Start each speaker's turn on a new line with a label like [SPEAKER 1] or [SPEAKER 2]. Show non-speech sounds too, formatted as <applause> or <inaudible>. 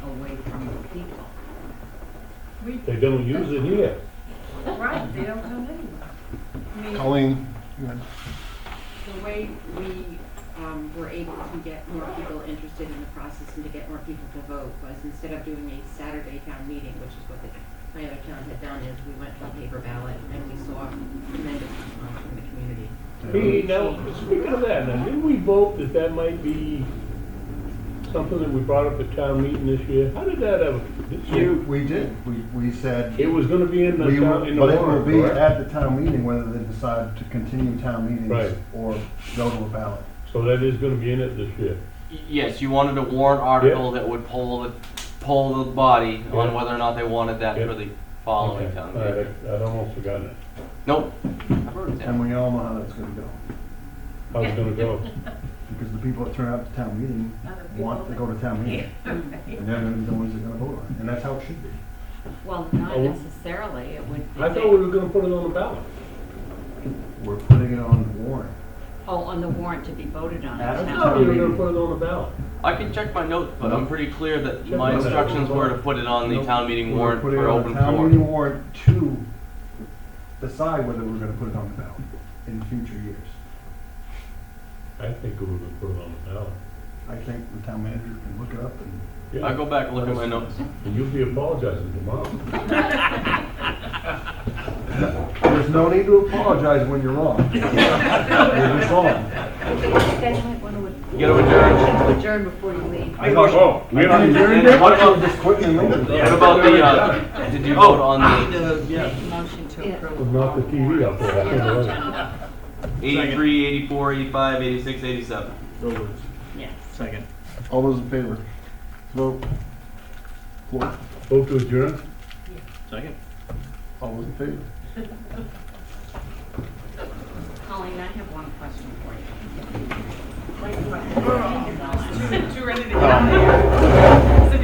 [SPEAKER 1] people.
[SPEAKER 2] They don't use it here.
[SPEAKER 1] Right, they don't come anywhere. I mean,
[SPEAKER 3] Colleen, go ahead.
[SPEAKER 4] The way we um, were able to get more people interested in the process and to get more people to vote was instead of doing a Saturday town meeting, which is what the, my other town had done, is we went to a paper ballot and we saw tremendous response from the community.
[SPEAKER 2] Hey, now, speaking of that, now, didn't we vote that that might be something that we brought up at town meeting this year? How did that ever, this
[SPEAKER 3] We-
[SPEAKER 2] year?
[SPEAKER 3] We did, we, we said,
[SPEAKER 2] It was gonna be in the
[SPEAKER 3] we,
[SPEAKER 2] town,
[SPEAKER 3] will-
[SPEAKER 2] in the
[SPEAKER 3] but it will
[SPEAKER 2] warrant,
[SPEAKER 3] be
[SPEAKER 2] correct?
[SPEAKER 3] at the town meeting whether they decide to continue town
[SPEAKER 2] Right.
[SPEAKER 3] meetings or go to a ballot.
[SPEAKER 2] So that is gonna be in it this year.
[SPEAKER 5] Yes, you wanted a warrant article that would poll the, poll the body
[SPEAKER 2] Yeah.
[SPEAKER 5] on whether or not they wanted that
[SPEAKER 2] Yep.
[SPEAKER 5] for the following
[SPEAKER 2] Okay,
[SPEAKER 5] town
[SPEAKER 2] all right,
[SPEAKER 5] meeting.
[SPEAKER 2] I- I'd almost forgotten it.
[SPEAKER 5] Nope. I've heard of that.
[SPEAKER 3] And we all know how that's gonna go,
[SPEAKER 2] How's it gonna
[SPEAKER 5] <laughs>
[SPEAKER 2] go?
[SPEAKER 3] because the people that turn out to town
[SPEAKER 1] Other
[SPEAKER 3] meeting
[SPEAKER 1] people
[SPEAKER 3] want to
[SPEAKER 1] that-
[SPEAKER 3] go to town meeting.
[SPEAKER 4] <laughs>
[SPEAKER 3] And they're gonna be the ones that are gonna vote on it, and that's how it should be.
[SPEAKER 6] Well, not
[SPEAKER 2] Oh.
[SPEAKER 6] necessarily, it would be.
[SPEAKER 2] I thought we were gonna put it on the ballot.
[SPEAKER 3] We're putting it on the warrant.
[SPEAKER 6] Oh, on the warrant to be voted on.
[SPEAKER 3] Adam?
[SPEAKER 2] I
[SPEAKER 6] now.
[SPEAKER 2] thought we were gonna put it on the ballot.
[SPEAKER 5] I can check my notes, but I'm pretty clear that my
[SPEAKER 2] my notes.
[SPEAKER 5] instructions were to put it on the town meeting
[SPEAKER 3] We're
[SPEAKER 5] warrant
[SPEAKER 3] putting
[SPEAKER 5] for
[SPEAKER 3] it on the
[SPEAKER 5] open
[SPEAKER 3] Town meeting
[SPEAKER 5] floor.
[SPEAKER 3] warrant to decide whether we're gonna put it on the ballot in future years.
[SPEAKER 2] I think we were gonna put it on the ballot.
[SPEAKER 3] I think the town manager can look it up and
[SPEAKER 5] I'll
[SPEAKER 2] Yeah,
[SPEAKER 5] go back and look at my
[SPEAKER 3] <laughs>
[SPEAKER 5] notes.
[SPEAKER 2] and you'll be apologizing tomorrow.
[SPEAKER 3] There's no need to apologize when you're wrong. You're just wrong.
[SPEAKER 1] You guys might want to.
[SPEAKER 5] You gotta adjourn.
[SPEAKER 1] Adjourn before you leave.
[SPEAKER 3] I thought, oh, we
[SPEAKER 2] have
[SPEAKER 3] to
[SPEAKER 5] adjourn it?
[SPEAKER 3] What about just quitting and leaving?
[SPEAKER 5] What about the, uh, did
[SPEAKER 3] Oh.
[SPEAKER 5] you
[SPEAKER 3] <laughs>
[SPEAKER 5] vote on the
[SPEAKER 6] Motion to
[SPEAKER 1] Yeah.
[SPEAKER 6] approve.
[SPEAKER 2] We'll knock the TV out there. I can't believe it.
[SPEAKER 5] 83, 84, 85, 86, 87?
[SPEAKER 7] Second.
[SPEAKER 3] All those in favor? Vote. Floor.
[SPEAKER 2] Vote to adjourn?
[SPEAKER 7] Second.
[SPEAKER 3] All those in favor?
[SPEAKER 6] Colleen, I have one question for you.
[SPEAKER 1] Too ready to get out of here.